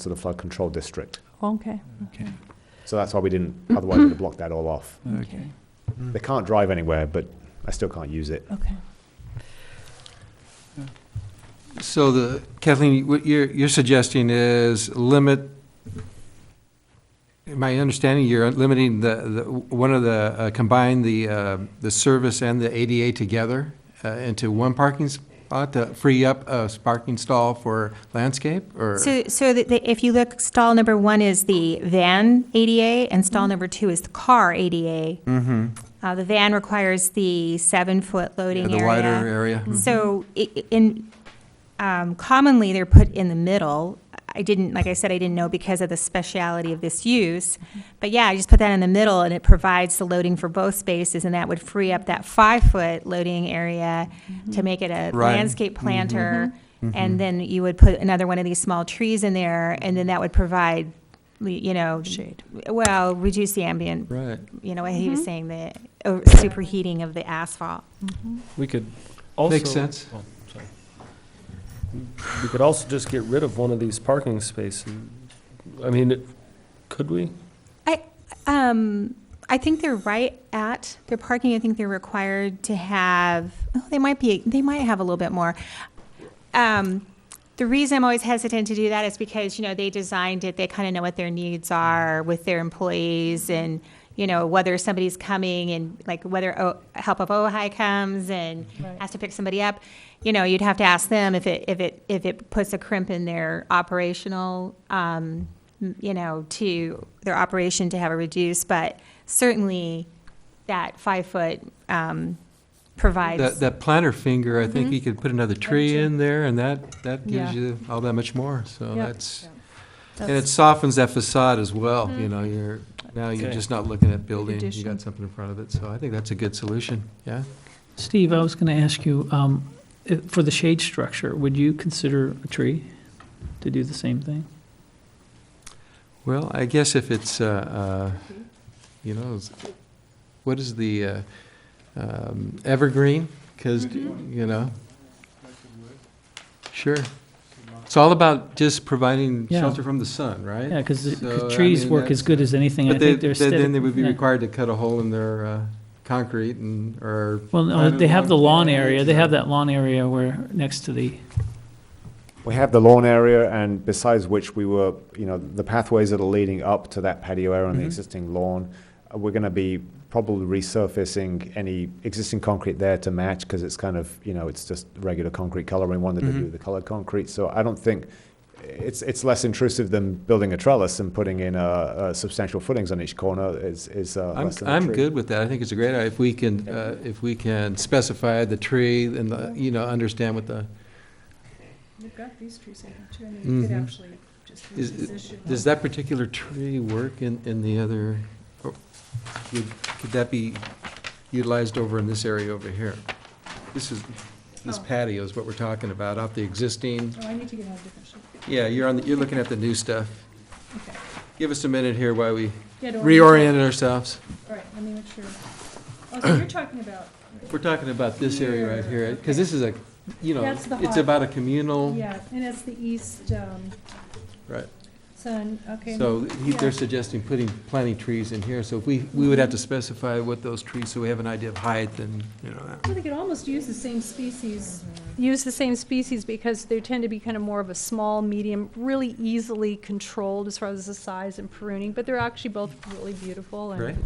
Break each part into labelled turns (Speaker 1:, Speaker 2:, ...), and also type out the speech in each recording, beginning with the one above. Speaker 1: to the flood control district.
Speaker 2: Okay.
Speaker 3: Okay,
Speaker 1: So that's why we didn't,
Speaker 4: Mm.
Speaker 1: otherwise we'd have blocked that all off.
Speaker 3: okay.
Speaker 1: They can't drive anywhere, but I still can't use it.
Speaker 2: Okay.
Speaker 4: So the, Kathleen, what you're, you're suggesting is limit, my understanding, you're limiting the, the, one of the, uh, combine the, uh, the service and the ADA together uh, into one parking spot to free up a parking stall for landscape, or?
Speaker 5: So, so the- the- if you look, stall number one is the van ADA,
Speaker 4: Mm-hmm.
Speaker 5: and stall number two is the car ADA. Uh, The van requires the seven-foot
Speaker 4: Yeah,
Speaker 5: loading
Speaker 4: The wider
Speaker 5: area.
Speaker 4: area? Mm-hmm.
Speaker 5: So i- i- in, um, commonly, they're put in the middle. I didn't, like I said, I didn't know because of the speciality of this use.
Speaker 4: Mm-hmm.
Speaker 5: But yeah, I just put that in the middle, and it provides the loading for both spaces, and that would free up that five-foot loading area to make it a
Speaker 4: Mm-hmm. Right. Mm-hmm.
Speaker 5: landscape planter. And then you would put another one of these small trees in there, and then that would provide, you know,
Speaker 2: Shade.
Speaker 5: well, reduce the ambient,
Speaker 4: Right.
Speaker 5: you know, what he was saying, the uh, superheating of the asphalt.
Speaker 6: Mm-hmm.
Speaker 3: We could also.
Speaker 4: Makes sense.
Speaker 3: Oh, sorry. We could also just get rid of one of these parking spaces. I mean, it- could we?
Speaker 5: I, um, I think they're right at their parking. I think they're required to have, oh, they might be, they might have a little bit more. Um, the reason I'm always hesitant to do that is because, you know, they designed it, they kind of know what their needs are with their employees and, you know, whether somebody's coming and like whether O- Help of Ojai comes and has to pick somebody up. You know, you'd have to ask them if it, if it, if it puts a crimp in their operational, um, m- you know, to their operation to have a reduce, but certainly that five-foot, um,
Speaker 4: That,
Speaker 5: provides.
Speaker 4: that planter finger, I think you could put another tree in there, and that, that gives
Speaker 2: Yeah.
Speaker 4: you all that much more, so
Speaker 2: Yeah.
Speaker 4: that's. And it
Speaker 2: That's- Mm-hmm.
Speaker 4: softens that facade as well, you know, you're, now you're
Speaker 3: Okay.
Speaker 4: just not looking at building, you
Speaker 2: Addition.
Speaker 4: got something in front of it, so I think that's a good solution, yeah?
Speaker 7: Steve, I was going to ask you, um, i- for the shade structure, would you consider a tree to do the same thing?
Speaker 4: Well, I guess if it's, uh, uh, you know, it's- what is the, uh, um, evergreen? Because,
Speaker 2: Mm-hmm.
Speaker 4: you know? Sure. It's all about just providing
Speaker 7: Yeah.
Speaker 4: shelter from the sun, right?
Speaker 7: Yeah, because
Speaker 4: So, I
Speaker 7: trees
Speaker 4: mean,
Speaker 7: work as
Speaker 4: that's-
Speaker 7: good as anything. I
Speaker 4: But they,
Speaker 7: think they're
Speaker 4: they- then they would be
Speaker 7: aesthetic- yeah.
Speaker 4: required to cut a hole in their uh, concrete and, or.
Speaker 7: Well, no,
Speaker 4: Private
Speaker 7: they have the
Speaker 4: lawn.
Speaker 7: lawn area, they have that lawn area where, next to the,
Speaker 1: We have the lawn area and besides which we were, you know, the pathways that are leading up to that patio area and the
Speaker 4: Mhm.
Speaker 1: existing lawn, uh, we're going to be probably resurfacing any existing concrete there to match because it's kind of, you know, it's just regular concrete color. We wanted to do
Speaker 4: Mhm.
Speaker 1: the colored concrete. So I don't think it's, it's less intrusive than building a trellis and putting in uh, uh, substantial footings on each corner is, is uh,
Speaker 4: I'm,
Speaker 1: less than a
Speaker 4: I'm
Speaker 1: tree.
Speaker 4: good with that. I think it's a great, idea. if we can, uh, if we can specify the tree and the, you know, understand what the,
Speaker 6: We've got these trees in here too, I mean, you could
Speaker 4: Mhm.
Speaker 6: actually just
Speaker 4: Is-
Speaker 6: reposition.
Speaker 4: does that particular tree work in, in the other, or would, could that be utilized over in this area over here? This is, this
Speaker 6: Oh.
Speaker 4: patio is what we're talking about, off the existing,
Speaker 6: Oh, I need to get out of different shape.
Speaker 4: yeah, you're on, the- you're looking at the new stuff.
Speaker 6: Okay.
Speaker 4: Give us a minute here while we
Speaker 6: Yeah, don't worry.
Speaker 4: reorient ourselves.
Speaker 6: All right, let me make sure. Oh, so you're talking about,
Speaker 4: We're talking about this area right here, because this is a, you know,
Speaker 6: That's the
Speaker 4: it's
Speaker 6: hot-
Speaker 4: about a communal,
Speaker 6: yeah, and it's the east, um,
Speaker 4: right?
Speaker 6: sun, okay.
Speaker 4: So he-
Speaker 6: yeah.
Speaker 4: they're suggesting putting, planting trees in here, so if we, we would have to specify what those trees, so we have an idea of height and, you know. that.
Speaker 6: Well, they could almost use the same species, use the same species because they tend to be kind of more of a small, medium, really easily controlled as far as the size and pruning, but they're actually both really beautiful and.
Speaker 4: Right.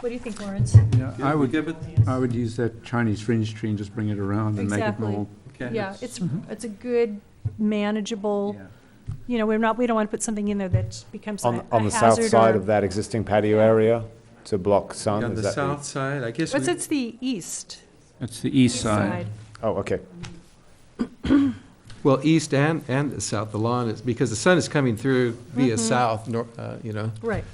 Speaker 6: What do you think, Lawrence?
Speaker 8: Yeah, I would,
Speaker 4: Good with-
Speaker 8: I would use that Chinese fringe tree and just bring it around and make it
Speaker 6: Exactly.
Speaker 8: more.
Speaker 4: okay.
Speaker 6: Yeah, it's,
Speaker 1: Mm-hmm.
Speaker 6: it's a good manageable,
Speaker 8: Yeah.
Speaker 6: you know, we're not, we don't want to put something in there that becomes a
Speaker 1: On,
Speaker 6: a
Speaker 1: on the south
Speaker 6: hazard
Speaker 1: side
Speaker 6: or-
Speaker 1: of that existing patio area to block sun.
Speaker 4: On
Speaker 1: is
Speaker 4: the
Speaker 1: that
Speaker 4: south side, I guess.
Speaker 6: But
Speaker 4: we-
Speaker 6: it's the east
Speaker 8: It's the east
Speaker 6: side.
Speaker 8: side.
Speaker 1: Oh, okay.
Speaker 4: Well, east and, and the south, the lawn is, because the sun is coming through via
Speaker 6: Mm-hmm.
Speaker 4: south, nor, uh, you know,
Speaker 6: Right.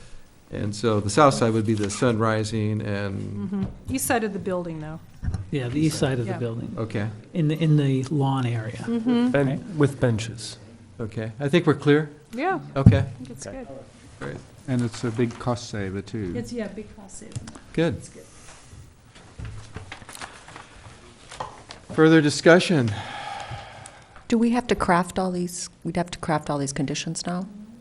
Speaker 4: and so the south side would be the sun rising and,
Speaker 6: mhm. East side of the building, though.
Speaker 7: yeah, the east side of the
Speaker 6: Yeah.
Speaker 7: building,
Speaker 4: okay,
Speaker 7: in the, in the lawn area.
Speaker 3: And with benches.
Speaker 4: okay. I think we're clear,
Speaker 6: Yeah,
Speaker 4: okay,
Speaker 6: I think it's
Speaker 1: Okay.
Speaker 6: good.
Speaker 8: And it's a big cost saver too.
Speaker 6: It's, yeah, big cost saving.
Speaker 4: good.
Speaker 6: It's good.
Speaker 4: Further discussion?
Speaker 9: Do we have to craft all these, we'd have to craft all these conditions now?